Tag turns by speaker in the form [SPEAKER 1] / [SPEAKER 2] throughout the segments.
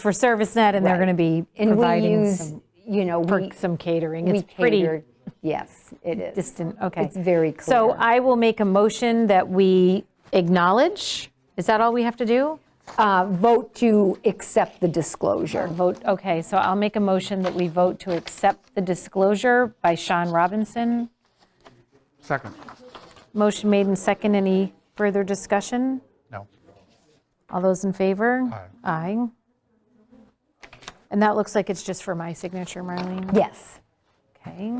[SPEAKER 1] for ServiceNet, and they're
[SPEAKER 2] Right.
[SPEAKER 1] going to be
[SPEAKER 2] And we
[SPEAKER 1] providing
[SPEAKER 2] use,
[SPEAKER 1] some,
[SPEAKER 2] you know,
[SPEAKER 1] for
[SPEAKER 2] we,
[SPEAKER 1] some catering.
[SPEAKER 2] we
[SPEAKER 1] It's pretty
[SPEAKER 2] catered. Yes, it is.
[SPEAKER 1] distant, okay.
[SPEAKER 2] It's very
[SPEAKER 1] So
[SPEAKER 2] clear.
[SPEAKER 1] I will make a motion that we acknowledge, is that all we have to do?
[SPEAKER 2] Uh, Vote to accept the disclosure.
[SPEAKER 1] Vote, okay, so I'll make a motion that we vote to accept the disclosure by Sean Robinson.
[SPEAKER 3] Second.
[SPEAKER 1] Motion made and second, any further discussion?
[SPEAKER 3] No.
[SPEAKER 1] All those in favor?
[SPEAKER 3] Aye.
[SPEAKER 1] Aye. And that looks like it's just for my signature, Marlene.
[SPEAKER 2] Yes.
[SPEAKER 1] Okay.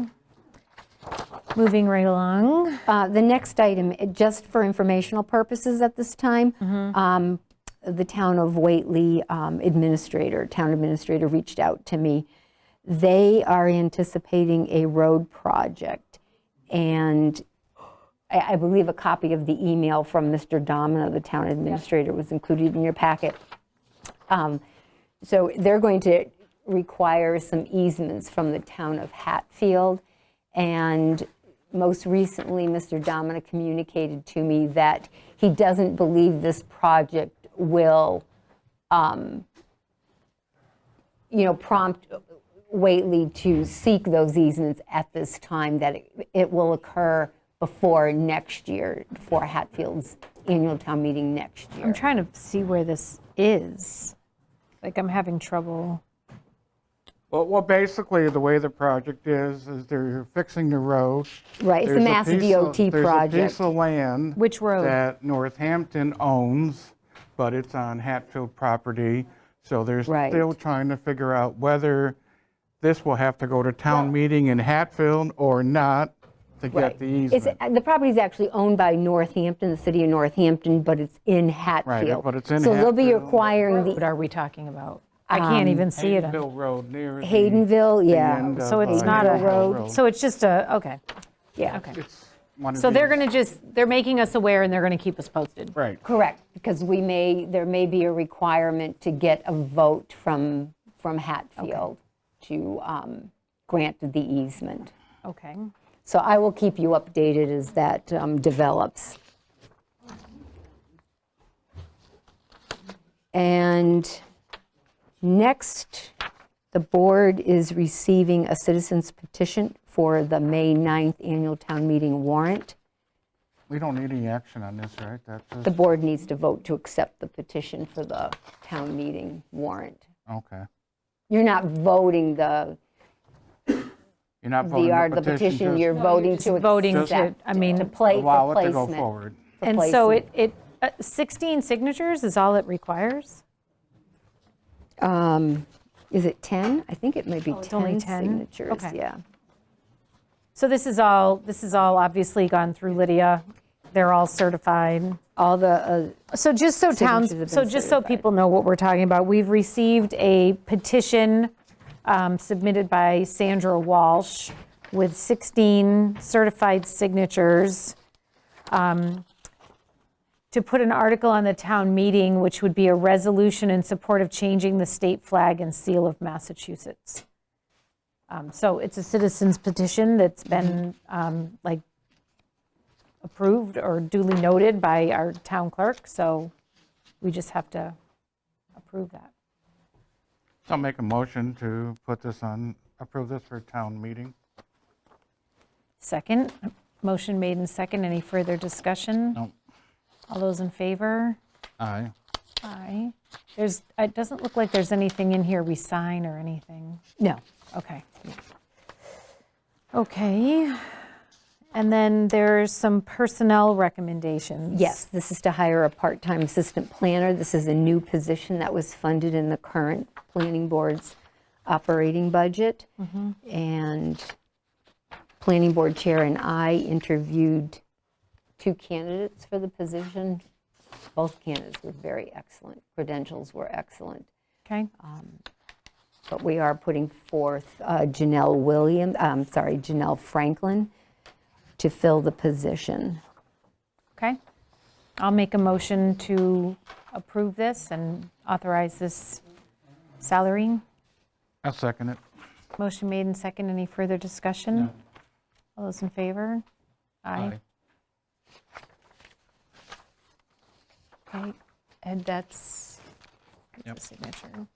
[SPEAKER 1] Moving right along.
[SPEAKER 2] Uh, The next item, uh, just for informational purposes at this time,
[SPEAKER 1] Mm-hmm.
[SPEAKER 2] um, the town of Whately um, administrator, town administrator reached out to me. They are anticipating a road project, and I I believe a copy of the email from Mr. Domina, the town administrator, was included in your packet. Um, So they're going to require some easements from the town of Hatfield. And most recently, Mr. Domina communicated to me that he doesn't believe this project will, um, you know, prompt Whately to seek those easements at this time, that it- it will occur before next year, for Hatfield's annual town meeting next year.
[SPEAKER 1] I'm trying to see where this is. Like, I'm having trouble.
[SPEAKER 3] Well, well, basically, the way the project is, is they're fixing the road.
[SPEAKER 2] Right, it's the
[SPEAKER 3] There's a
[SPEAKER 2] Mass
[SPEAKER 3] piece of-
[SPEAKER 2] DOT
[SPEAKER 3] There's a
[SPEAKER 2] project.
[SPEAKER 3] piece of land.
[SPEAKER 1] Which road?
[SPEAKER 3] That Northampton owns, but it's on Hatfield property. So they're
[SPEAKER 2] Right.
[SPEAKER 3] still trying to figure out whether this will have to go to town meeting in Hatfield or not to
[SPEAKER 2] Right.
[SPEAKER 3] get the
[SPEAKER 2] It's- uh,
[SPEAKER 3] easement.
[SPEAKER 2] The property is actually owned by Northampton, the city of Northampton, but it's in Hatfield.
[SPEAKER 3] but it's in
[SPEAKER 2] So they'll be
[SPEAKER 3] Hatfield.
[SPEAKER 2] acquiring
[SPEAKER 1] What
[SPEAKER 2] the
[SPEAKER 1] are we talking about? I can't even see it. on-
[SPEAKER 3] Haydenville Road near. the-
[SPEAKER 2] Haydenville,
[SPEAKER 3] the
[SPEAKER 2] yeah.
[SPEAKER 3] end of,
[SPEAKER 1] So it's
[SPEAKER 3] uh,
[SPEAKER 1] not a
[SPEAKER 3] Haydenville
[SPEAKER 1] road, so it's just a, okay.
[SPEAKER 2] Yeah,
[SPEAKER 1] Okay.
[SPEAKER 3] It's one of
[SPEAKER 1] So they're
[SPEAKER 3] these-
[SPEAKER 1] going to just, they're making us aware and they're going to keep us posted.
[SPEAKER 3] Right.
[SPEAKER 2] Correct, because we may, there may be a requirement to get a vote from, from Hatfield to um, grant the easement.
[SPEAKER 1] Okay.
[SPEAKER 2] So I will keep you updated as that um, develops. And next, the board is receiving a citizen's petition for the May 9th annual town meeting warrant.
[SPEAKER 3] We don't need any action on this, right? That's just-
[SPEAKER 2] The board needs to vote to accept the petition for the town meeting warrant.
[SPEAKER 3] okay.
[SPEAKER 2] You're not voting the,
[SPEAKER 3] You're not voting
[SPEAKER 2] the art- the
[SPEAKER 3] Oh, the petition,
[SPEAKER 2] petition, you're
[SPEAKER 3] just
[SPEAKER 2] voting to accept.
[SPEAKER 1] voting to- I mean-
[SPEAKER 2] To play
[SPEAKER 3] allow
[SPEAKER 2] for
[SPEAKER 3] it to go
[SPEAKER 2] placement.
[SPEAKER 3] forward.
[SPEAKER 1] And so it, it, uh, 16 signatures is all it requires?
[SPEAKER 2] um, is it 10? I think it might be
[SPEAKER 1] Oh, it's only
[SPEAKER 2] 10
[SPEAKER 1] 10?
[SPEAKER 2] signatures,
[SPEAKER 1] Okay.
[SPEAKER 2] yeah.
[SPEAKER 1] So this is all, this is all obviously gone through Lydia. They're all certified.
[SPEAKER 2] All the, uh,
[SPEAKER 1] So just so towns,
[SPEAKER 2] Signatures have
[SPEAKER 1] so
[SPEAKER 2] been
[SPEAKER 1] just so
[SPEAKER 2] certified.
[SPEAKER 1] people know what we're talking about, we've received a petition um, submitted by Sandra Walsh with 16 certified signatures um, to put an article on the town meeting, which would be a resolution in support of changing the state flag and seal of Massachusetts. Um, So it's a citizen's petition that's been
[SPEAKER 2] Mm-hmm.
[SPEAKER 1] um, like approved or duly noted by our town clerk, so we just have to approve that.
[SPEAKER 3] So I'll make a motion to put this on, approve this for town meeting.
[SPEAKER 1] Second, motion made and second, any further discussion?
[SPEAKER 3] No,
[SPEAKER 1] All those in favor?
[SPEAKER 3] aye.
[SPEAKER 1] Aye. There's, it doesn't look like there's anything in here we sign or anything.
[SPEAKER 2] no,
[SPEAKER 1] Okay. Okay. And then there's some personnel recommendations.
[SPEAKER 2] yes, this is to hire a part-time assistant planner. This is a new position that was funded in the current planning board's operating budget.
[SPEAKER 1] Mm-hmm.
[SPEAKER 2] And planning board chair and I interviewed two candidates for the position. Both candidates were very excellent, credentials were excellent.
[SPEAKER 1] Okay,
[SPEAKER 2] But we are putting forth uh, Janelle Williams, I'm sorry, Janelle Franklin to fill the position.
[SPEAKER 1] okay. I'll make a motion to approve this and authorize this salary.
[SPEAKER 3] I'll second it.
[SPEAKER 1] Motion made and second. Any further
[SPEAKER 2] Hmm.
[SPEAKER 1] discussion? All those in favor? Aye. Okay, and that's signature.